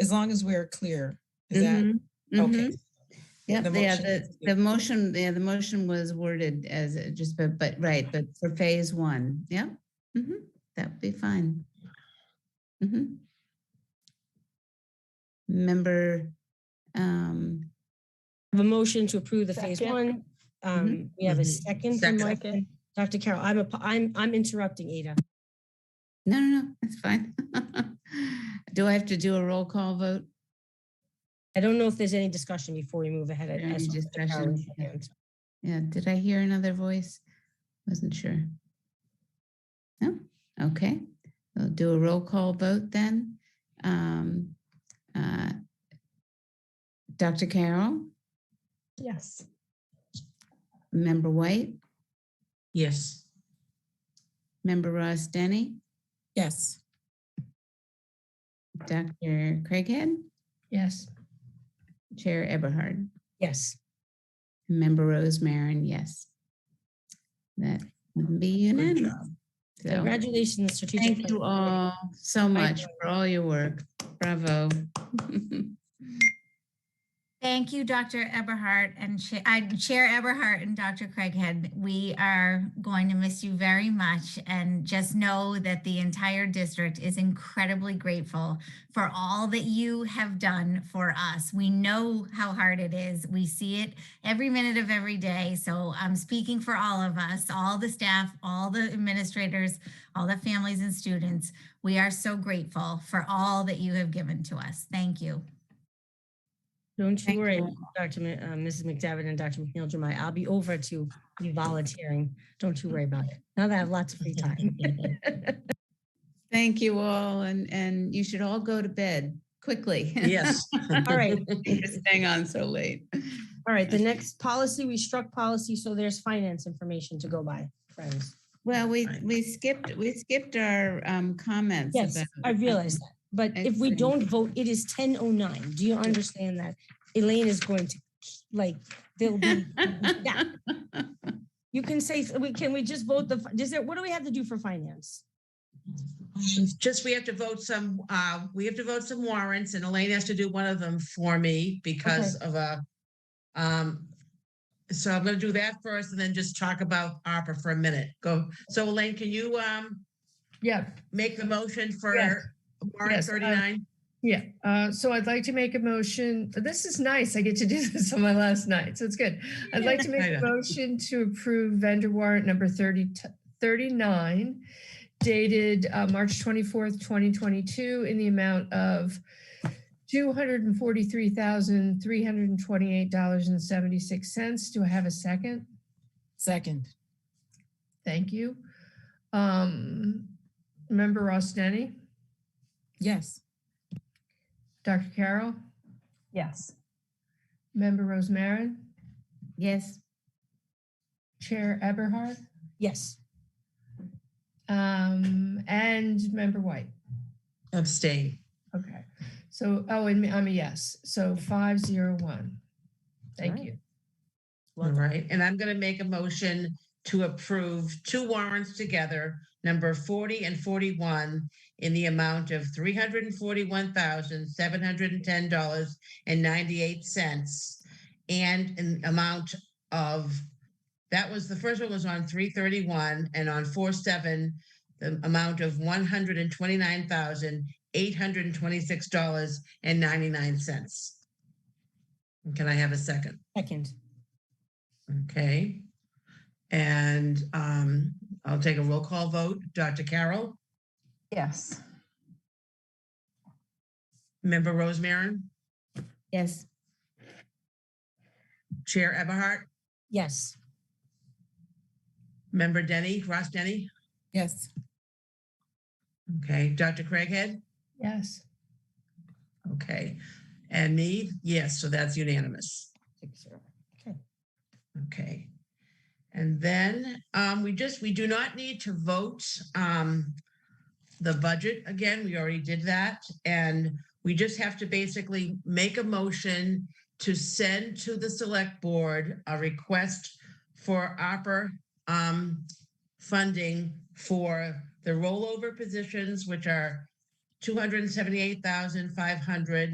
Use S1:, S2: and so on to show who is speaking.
S1: as long as we're clear. Is that,
S2: Mhm,
S1: okay,
S2: mhm. Yep,
S1: the
S2: yeah,
S1: motion
S2: the,
S1: is-
S2: the motion, yeah, the motion was worded as it just, but, but, right, but for phase one, yeah. mhm, That'd be fine. Mhm. Member, um,
S3: have a motion to approve the phase
S4: Second.
S3: one.
S2: Mm-hmm.
S3: Um, we have a
S1: Mhm.
S3: second from Mike.
S4: Second.
S3: Dr. Carroll, I'm, apo- I'm, I'm interrupting Ada.
S2: no, no, no, that's fine. Do I have to do a roll call vote?
S3: I don't know if there's any discussion before we move ahead. I- I
S2: Any
S3: saw Dr. Carroll's
S2: discussion?
S3: hand.
S2: Yeah, did I hear another voice? Wasn't sure. No, okay, we'll do a roll call vote then. Um, uh, Dr. Carroll,
S3: Yes.
S2: Member White,
S4: Yes.
S2: Member Ross Denny,
S1: yes.
S2: Dr. Craighead,
S3: Yes.
S2: Chair Eberhard,
S3: Yes.
S2: Member Rose Marin, yes. That would be unanimous. So,
S3: Congratulations, strategic.
S2: Thank
S3: plan.
S2: you all so much for all your work. Bravo.
S5: Thank you, Dr. Eberhardt and Cha- uh, Chair Eberhardt and Dr. Craighead. We are going to miss you very much. And just know that the entire district is incredibly grateful for all that you have done for us. We know how hard it is. We see it every minute of every day. So I'm speaking for all of us, all the staff, all the administrators, all the families and students. We are so grateful for all that you have given to us. Thank you.
S3: Don't you
S2: Thank
S3: worry,
S2: you.
S3: Dr. Ma- uh, Mrs. McDevitt and Dr. McNeil Jemai. I'll be over to you volunteering. Don't you worry about it. Now that I have lots of free time.
S2: Thank you all, and, and you should all go to bed quickly.
S4: Yes.
S3: All right.
S2: You're Staying on so late.
S3: All right, the next policy, we struck policy, so there's finance information to go by, friends.
S2: Well, we,
S4: Right.
S2: we skipped, we skipped our um, comments.
S3: Yes,
S2: about-
S3: I realize that, but if we
S2: Excellent.
S3: don't vote, it is ten oh nine. Do you understand that? Elaine is going to, like, there'll be, yeah. you can say, we, can we just vote the, does there, what do we have to do for finance?
S4: Just, we have to vote some, uh, we have to vote some warrants and Elaine has to do one of them for me because of a, um, so I'm gonna do that first and then just talk about ARPA for a minute. Go, so Elaine, can you, um,
S6: Yeah,
S4: make the motion for
S6: Yes.
S4: warrant
S6: Yes, uh,
S4: thirty-nine?
S6: yeah. Uh, So I'd like to make a motion. This is nice. I get to do this on my last night, so it's good. I'd like to make
S4: I
S6: a
S4: know.
S6: motion to approve vendor warrant number 30, t- 39 dated uh, March 24th, 2022 in the amount of $243,328.76. Do I have a second?
S1: Second,
S6: Thank you. Um, Member Ross Denny,
S1: yes.
S6: Dr. Carroll,
S3: Yes.
S6: Member Rose Marin?
S2: Yes,
S6: Chair Eberhard
S3: Yes.
S6: um, and Member White.
S4: Abstain.
S6: Okay. So, oh, and me- I'm a yes. So five zero one. Thank
S3: Alright.
S6: you.
S4: All right, and I'm gonna make a motion to approve two warrants together, number forty and forty-one, in the amount of three hundred and forty-one thousand, seven hundred and ten dollars and ninety-eight cents. And an amount of, that was, the first one was on three thirty-one, and on four seven, the amount of one hundred and twenty-nine thousand, eight hundred and twenty-six dollars and ninety-nine cents. Can I have a second?
S3: Second.
S4: Okay. And um, I'll take a roll call vote. Dr. Carroll,
S3: Yes.
S4: Member Rose Marin,
S2: yes.
S4: Chair Eberhart,
S3: Yes.
S4: Member Denny, Ross Denny.
S1: Yes.
S4: Okay, Dr. Craighead,
S6: Yes.
S4: okay. And me, yes, so that's unanimous.
S3: Six zero.
S4: Okay. And then um, we just, we do not need to vote um, the budget again. We already did that. And we just have to basically make a motion to send to the select board a request for ARPA um, funding for the rollover positions, which are 278,500